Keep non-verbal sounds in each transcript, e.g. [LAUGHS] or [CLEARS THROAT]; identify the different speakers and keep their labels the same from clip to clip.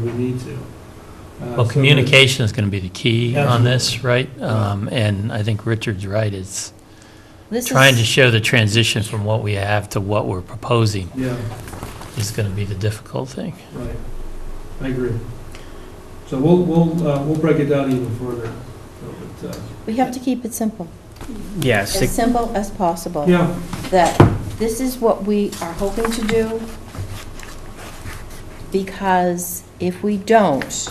Speaker 1: we need to. Uh,
Speaker 2: Well,
Speaker 1: so
Speaker 2: communication is going to be the key on this, right? Um, And I think Richard's right, it's
Speaker 3: This
Speaker 2: trying to
Speaker 3: is-
Speaker 2: show the transition from what we have to what we're proposing
Speaker 1: that- Yeah,
Speaker 2: is going to be the difficult thing.
Speaker 1: right. I agree. So we'll, we'll, uh, we'll break it down even further. So, but, uh,
Speaker 3: We have to keep it simple,
Speaker 4: Yes,
Speaker 3: as
Speaker 4: it-
Speaker 3: simple as possible.
Speaker 1: uh, Yeah,
Speaker 3: That this is what we are hoping to do, because if we don't,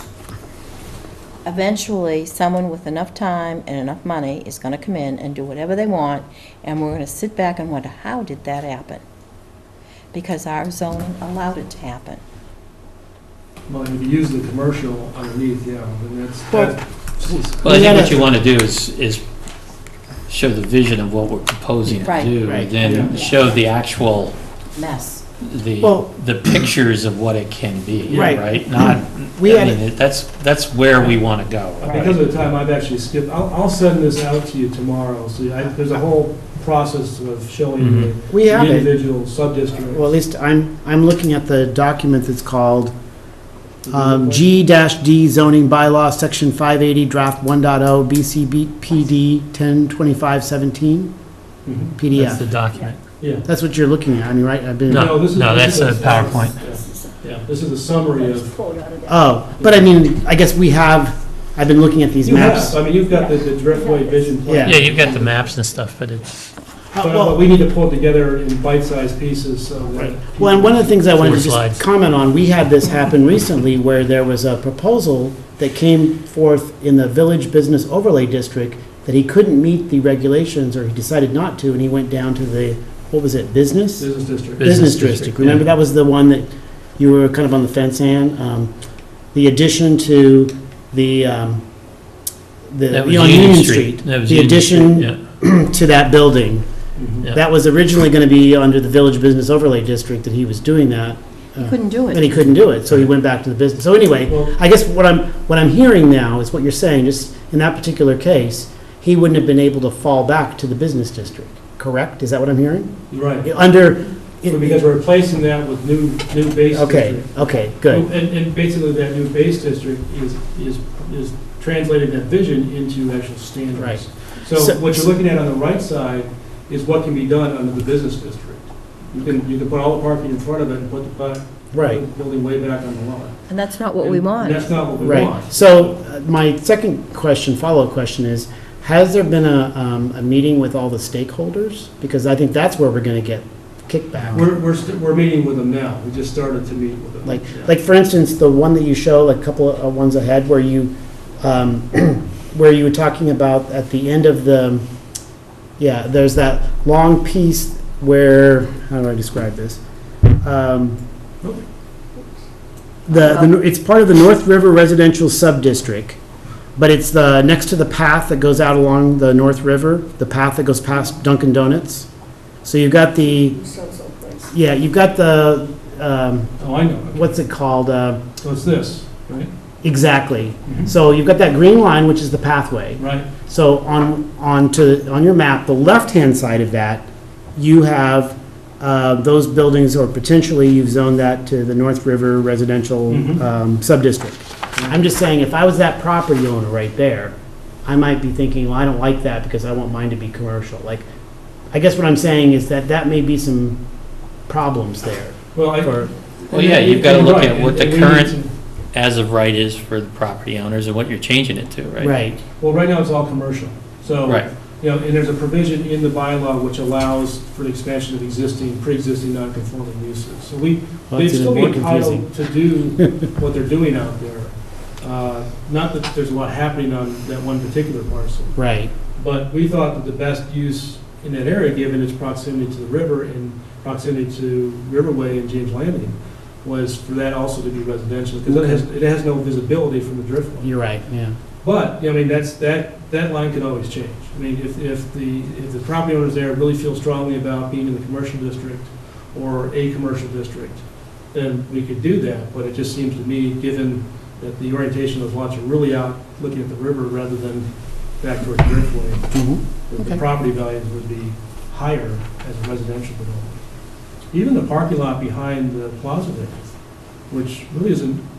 Speaker 3: eventually, someone with enough time and enough money is going to come in and do whatever they want, and we're going to sit back and wonder, how did that happen? Because our zoning allowed it to happen.
Speaker 1: well, if you use the commercial underneath, yeah, then that's,
Speaker 4: Well-
Speaker 1: that's,
Speaker 2: Well, I think what
Speaker 4: gotta-
Speaker 2: you want to do is, is show the vision of what we're proposing to
Speaker 3: Right.
Speaker 2: do,
Speaker 4: Right.
Speaker 2: and then
Speaker 3: Yeah.
Speaker 2: show the actual,
Speaker 3: Mess.
Speaker 2: the,
Speaker 4: Well-
Speaker 2: the pictures of what it can be,
Speaker 4: Right. Mm-hmm.
Speaker 2: right? Not,
Speaker 4: we
Speaker 2: I
Speaker 4: had, it-
Speaker 2: mean, that's, that's where we want to go, right?
Speaker 1: because of the time, I've actually skipped, I'll, I'll send this out to you tomorrow. So I, there's a whole process of
Speaker 2: Mm-hmm.
Speaker 1: showing the
Speaker 4: we
Speaker 1: the
Speaker 4: have it.
Speaker 1: individual sub-district.
Speaker 4: Well, at least I'm, I'm looking at the document that's called um, G-D zoning bylaw, section 580, draft oh, 1.0, BCBPD 102517,
Speaker 1: Mhm.
Speaker 2: That's
Speaker 4: PDF.
Speaker 2: the document.
Speaker 1: Yeah.
Speaker 4: That's what you're looking at, I mean, right? I've been,
Speaker 2: No,
Speaker 1: this is-
Speaker 2: no,
Speaker 1: this is
Speaker 2: that's a PowerPoint.
Speaker 1: Yeah, yeah, this is a summary of
Speaker 4: oh, but I mean, I guess we have, I've been looking at these
Speaker 1: You have,
Speaker 4: maps.
Speaker 1: I mean, you've got the, the Driftway Vision Plan.
Speaker 2: Yeah, you've got the maps and stuff, but it's,
Speaker 4: Uh,
Speaker 1: But
Speaker 4: well-
Speaker 1: but we need to pull it together in bite-sized pieces, so that.
Speaker 4: Well, and one of the things I wanted to
Speaker 2: Four slides.
Speaker 4: just comment on, we had this happen recently where there was a proposal that came forth in the Village Business Overlay District that he couldn't meet the regulations, or he decided not to, and he went down to the, what was it, business?
Speaker 1: Business district.
Speaker 2: Business
Speaker 4: Business
Speaker 2: district,
Speaker 4: district, remember,
Speaker 2: yeah.
Speaker 4: that was the one that you were kind of on the fence on? um, The addition to the, um, the,
Speaker 2: that
Speaker 4: on
Speaker 2: was
Speaker 4: Union Street,
Speaker 2: That was
Speaker 4: the
Speaker 2: Union Street,
Speaker 4: addition
Speaker 2: yeah.
Speaker 4: [CLEARS THROAT] to that building.
Speaker 1: Mhm.
Speaker 2: Yeah.
Speaker 4: That was originally going to be under the Village Business Overlay District that he was doing that.
Speaker 3: You
Speaker 4: uh,
Speaker 3: couldn't do
Speaker 4: But he
Speaker 3: it.
Speaker 4: couldn't do it, so he went back to the business. So anyway,
Speaker 1: Well,
Speaker 4: I guess what I'm, what I'm hearing now is what you're saying, just in that particular case, he wouldn't have been able to fall back to the business district, correct? Is that what I'm hearing?
Speaker 1: you're right.
Speaker 4: Under,
Speaker 1: So Because we're replacing that with new, new base district.
Speaker 4: okay, okay, good,
Speaker 1: And, and basically that new base district is, is, is translating that vision into actual standards.
Speaker 4: Right.
Speaker 1: So
Speaker 4: So-
Speaker 1: what you're looking at on the right side is what can be done under the business district. You can, you can put all the parking in front of it and put the, bu-
Speaker 4: right,
Speaker 1: building way back on the lot.
Speaker 3: And that's not what we
Speaker 1: And
Speaker 3: want.
Speaker 1: That's not what we
Speaker 4: right.
Speaker 1: want.
Speaker 4: So uh, my second question, follow-up question is, has there been a, um, a meeting with all the stakeholders? Because I think that's where we're going to get kickback.
Speaker 1: We're, we're, st- we're meeting with them now, we just started to meet with them.
Speaker 4: Like,
Speaker 1: Yeah.
Speaker 4: like for instance, the one that you show, like a couple of uh, ones ahead, where you, um, [CLEARS THROAT] where you were talking about at the end of the, yeah, there's that long piece where, how do I describe this? Um, The, the- it's part of the North River Residential Subdistrict, but it's the, next to the path that goes out along the North River, the path that goes past Dunkin' Donuts. So you've got the, yeah, you've got the, um,
Speaker 1: Oh, I know,
Speaker 4: what's it called? Uh,
Speaker 1: so it's this, right?
Speaker 4: exactly. So you've got that green line, which is the pathway.
Speaker 1: Right,
Speaker 4: So on on to on your map, the left hand side of that, you have uh, those buildings, or potentially you've zoned that to the North River residential
Speaker 1: Mhm.
Speaker 4: um, subdistrict. I'm just saying, if I was that property owner right there, I might be thinking, well, I don't like that because I want mine to be commercial. Like, I guess what I'm saying is that that may be some problems there.
Speaker 1: well, I.
Speaker 4: For-
Speaker 2: Well, yeah, you've gotta look at what the
Speaker 1: And- and we need
Speaker 2: current-
Speaker 1: to-
Speaker 2: as of right is for the property owners and what you're changing it to, right?
Speaker 4: Right.
Speaker 1: Well, right now it's all commercial, so.
Speaker 2: Right.
Speaker 1: You know, and there's a provision in the bylaw which allows for the expansion of existing, pre-existing non-conforming uses. So we,
Speaker 4: Well,
Speaker 1: They'd
Speaker 4: it's even
Speaker 1: still be
Speaker 4: more confusing.
Speaker 1: entitled to do
Speaker 2: [LAUGHS]
Speaker 1: what they're doing out there. Uh, Not that there's a lot happening on that one particular parcel,
Speaker 4: Right.
Speaker 1: but we thought that the best use in that area, given its proximity to the river and proximity to Riverway and James Landing, was for that also to be residential, because it has, it has no visibility from the driftway.
Speaker 4: You're right, yeah.
Speaker 1: But, I mean, that's, that, that line could always change. I mean, if, if the, if the property owners there really feel strongly about being in the commercial district or a commercial district, then we could do that, but it just seems to me, given that the orientation of lots are really out looking at the river rather than back towards Driftway, that the
Speaker 4: Okay.
Speaker 1: property values would be higher as a residential development. Even the parking lot behind the plaza there, which really isn't